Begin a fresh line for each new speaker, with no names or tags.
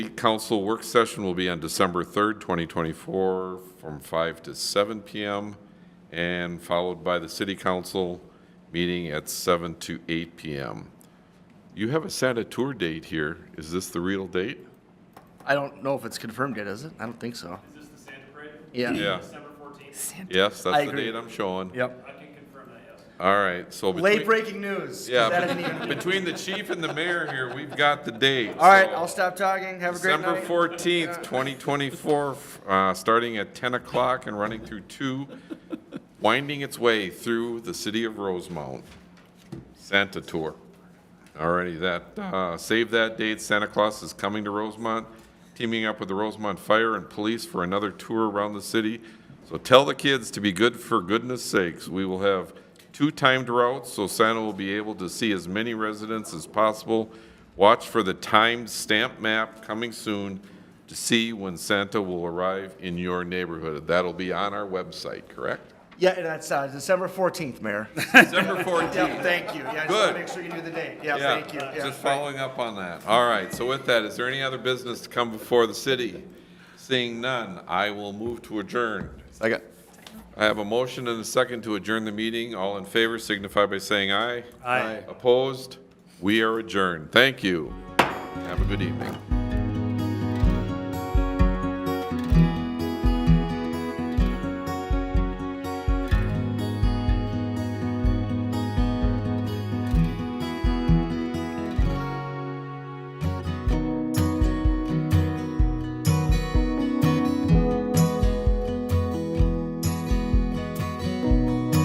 The council work session will be on December 3rd, 2024, from 5 to 7 PM, and followed by the city council meeting at 7 to 8 PM. You have a Santa tour date here. Is this the real date?
I don't know if it's confirmed yet, is it? I don't think so.
Is this the Santa Parade?
Yeah.
Yeah.
December fourteenth?
Yes,
I
that's the
agree.
date I'm showing.
Yep.
I can confirm that, yes.
All right, so
Late
between,
breaking news. 'cause that isn't
yeah,
even-
bet- between the chief and the mayor here, we've got the date.
All right,
so-
I'll stop talking. Have a great
December
night.
14th, 2024, f- uh, starting at 10 o'clock and running through 2, winding its way through the city of Rosemount. Santa Tour. Alrighty, that, uh, save that date, Santa Claus is coming to Rosemont, teaming up with the Rosemont Fire and Police for another tour around the city. So tell the kids to be good for goodness sakes. We will have two timed routes, so Santa will be able to see as many residents as possible. Watch for the timed stamp map coming soon to see when Santa will arrive in your neighborhood. That'll be on our website, correct?
Yeah, and that's uh, December 14th, Mayor.
December 14th.
Yep, thank you. Yeah, I just
Good.
want to make sure you knew the date. Yeah,
Yeah,
thank you. Yeah,
Just following up on that. All right, so with that, is there any other business to come before the city? Seeing none, I will move to adjourn.
Second.
I have a motion and a second to adjourn the meeting. All in favor signify by saying aye.
Aye.
Opposed? We are adjourned. Thank you. Have a good evening.